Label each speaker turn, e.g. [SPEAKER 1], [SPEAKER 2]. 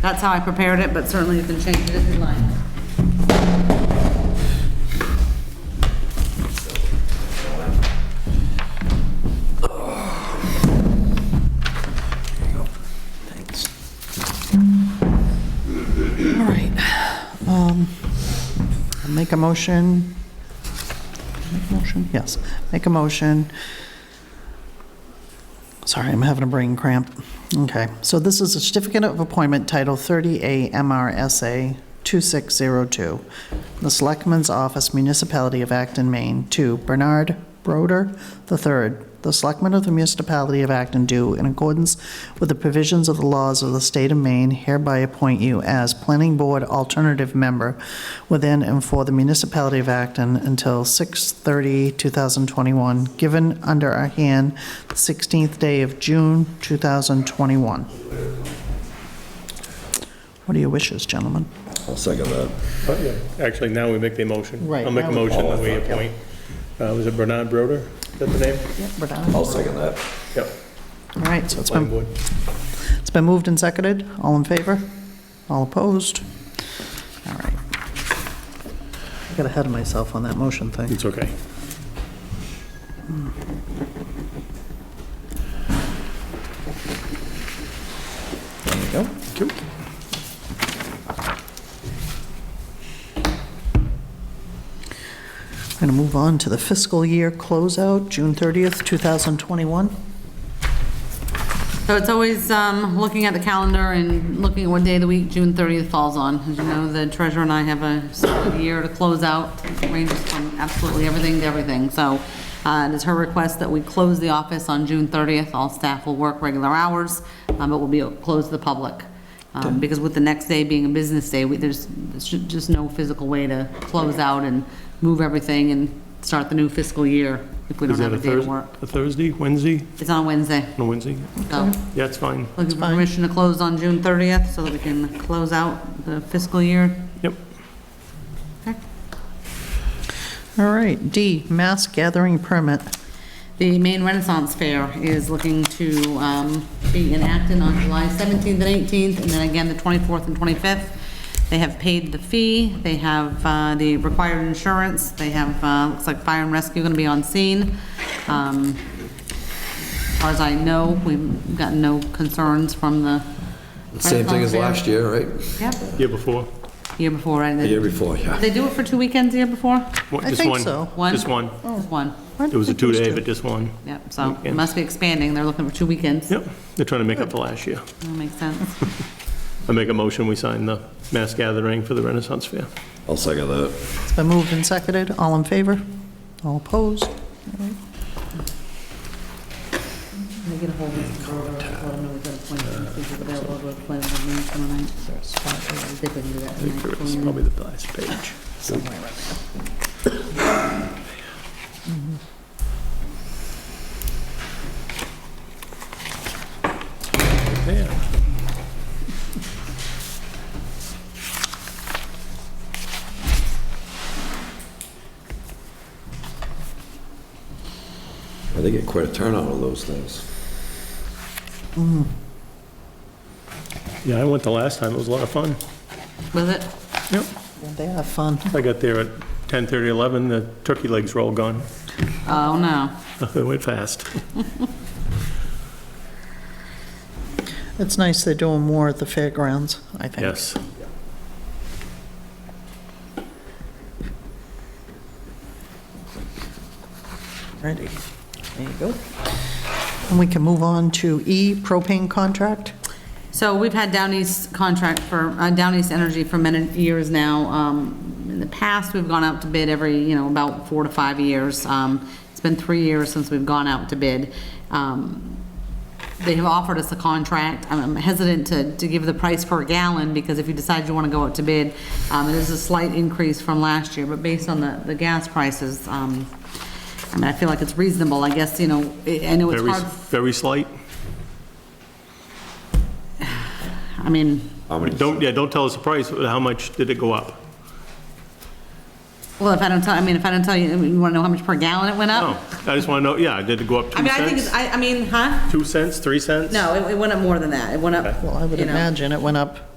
[SPEAKER 1] That's how I prepared it, but certainly you can change it if you'd like.
[SPEAKER 2] All right. Um, Make a motion. Make a Motion, yes. Make a motion. Sorry, I'm having a brain cramp. Okay, so this is a certificate of appointment, Title 30A MRSA 2602, the Selectman's Office, Municipality of Acton, Maine, to Bernard Broder III, the Selectman of the Municipality of Acton, do in accordance with the provisions of the laws of the state of Maine, hereby appoint you as Planning Board Alternative Member within and for the Municipality of Acton until 6/30/2021, given under our hand the 16th day of June 2021. What are your wishes, gentlemen?
[SPEAKER 3] I'll second that.
[SPEAKER 4] Oh, yeah. Actually, now we make the motion.
[SPEAKER 2] Right,
[SPEAKER 4] I'll make a
[SPEAKER 2] now we-
[SPEAKER 4] motion that we appoint, uh, was it Bernard Broder? Is that the name?
[SPEAKER 3] I'll second that.
[SPEAKER 4] Yep.
[SPEAKER 2] All right, so it's
[SPEAKER 4] Planning
[SPEAKER 2] been,
[SPEAKER 4] board.
[SPEAKER 2] it's been moved and seconded. All in favor? All opposed? All right. I got ahead of myself on that motion thing.
[SPEAKER 4] It's okay.
[SPEAKER 3] There you go.
[SPEAKER 2] Going to move on to the fiscal year closeout, June 30th, 2021.
[SPEAKER 1] So it's always um, looking at the calendar and looking at what day of the week June 30th falls on. As you know, the treasurer and I have a sort of year to close out, ranges from absolutely everything to everything. So uh, it is her request that we close the office on June 30th. All staff will work regular hours, um, but will be closed to the public. Um, Because with the next day being a business day, we- there's there's ju- just no physical way to close out and move everything and start the new fiscal year if we
[SPEAKER 4] Is
[SPEAKER 1] don't have
[SPEAKER 4] that a
[SPEAKER 1] a day to
[SPEAKER 4] Thursday,
[SPEAKER 1] work.
[SPEAKER 4] a Thursday, Wednesday?
[SPEAKER 1] It's on Wednesday,
[SPEAKER 4] No, Wednesday?
[SPEAKER 1] so.
[SPEAKER 4] Yeah, it's fine.
[SPEAKER 1] Looking for permission to close on June 30th so that we can close out the fiscal year.
[SPEAKER 4] Yep.
[SPEAKER 2] All right, D, mass gathering permit.
[SPEAKER 1] The Maine Renaissance Fair is looking to um, be in Acton on July 17th and 18th, and then again the 24th and 25th. They have paid the fee, they have uh, the required insurance, they have, uh, looks like fire and rescue going to be on scene. Um, As far as I know, we've gotten no concerns from the.
[SPEAKER 3] Same thing
[SPEAKER 1] Renaissance
[SPEAKER 3] as
[SPEAKER 1] Fair.
[SPEAKER 3] last year, right?
[SPEAKER 1] Yep,
[SPEAKER 4] Year before?
[SPEAKER 1] year before, right?
[SPEAKER 3] The year before, yeah.
[SPEAKER 1] They do it for two weekends the year before?
[SPEAKER 4] What-
[SPEAKER 2] I
[SPEAKER 4] just
[SPEAKER 2] think
[SPEAKER 4] one?
[SPEAKER 2] so.
[SPEAKER 1] One?
[SPEAKER 4] Just one.
[SPEAKER 1] Just one,
[SPEAKER 4] It was a two-day, but just one.
[SPEAKER 1] yep, so it
[SPEAKER 4] Weekends.
[SPEAKER 1] must be expanding, they're looking for two weekends.
[SPEAKER 4] Yep, they're trying to make up for last year.
[SPEAKER 1] That makes sense.
[SPEAKER 4] I make a motion, we sign the mass gathering for the Renaissance Fair.
[SPEAKER 3] I'll second that.
[SPEAKER 2] It's been moved and seconded. All in favor? All opposed? All right.
[SPEAKER 1] Can I get a hold of Mr. Broder, let him know we've got appointments, he's available to plan with me tomorrow night. They couldn't do that
[SPEAKER 4] I think
[SPEAKER 1] tonight.
[SPEAKER 4] It's probably the last page. Yeah.
[SPEAKER 3] Well, They get quite a turnout on those things.
[SPEAKER 4] Yeah, I went the last time, it was a lot of fun.
[SPEAKER 1] Was it?
[SPEAKER 4] Yep.
[SPEAKER 2] They have fun.
[SPEAKER 4] I got there at 10:30, 11, the turkey legs were all gone.
[SPEAKER 1] Oh, no.
[SPEAKER 4] It went fast.
[SPEAKER 2] It's nice they're doing more at the fairgrounds, I think.
[SPEAKER 4] Yes.
[SPEAKER 2] Ready. There you go. And we can move on to E, propane contract.
[SPEAKER 1] So we've had Down East contract for, uh, Down East Energy for many years now. Um, In the past, we've gone out to bid every, you know, about four to five years. Um, It's been three years since we've gone out to bid. Um, They have offered us a contract. I'm- I'm hesitant to, to give the price per gallon because if you decide you want to go out to bid, um, it is a slight increase from last year, but based on the, the gas prices, um, I mean, I feel like it's reasonable, I guess, you know, I I know it's
[SPEAKER 4] Very,
[SPEAKER 1] hard,
[SPEAKER 4] very slight.
[SPEAKER 1] I mean,
[SPEAKER 3] How many?
[SPEAKER 4] Don't, yeah, don't tell us the price, but how much did it go up?
[SPEAKER 1] Well, if I don't tell, I mean, if I don't tell you, I mean, you want to know how much per gallon it went
[SPEAKER 4] No,
[SPEAKER 1] up?
[SPEAKER 4] I just want to know, yeah, did it go up
[SPEAKER 1] Oh. I
[SPEAKER 4] two
[SPEAKER 1] mean, I think, it's
[SPEAKER 4] cents?
[SPEAKER 1] I, I mean, huh?
[SPEAKER 4] Two cents, three cents?
[SPEAKER 1] No, it, it went up more than that. It went up.
[SPEAKER 2] Well, I would
[SPEAKER 1] you know.
[SPEAKER 2] imagine it went up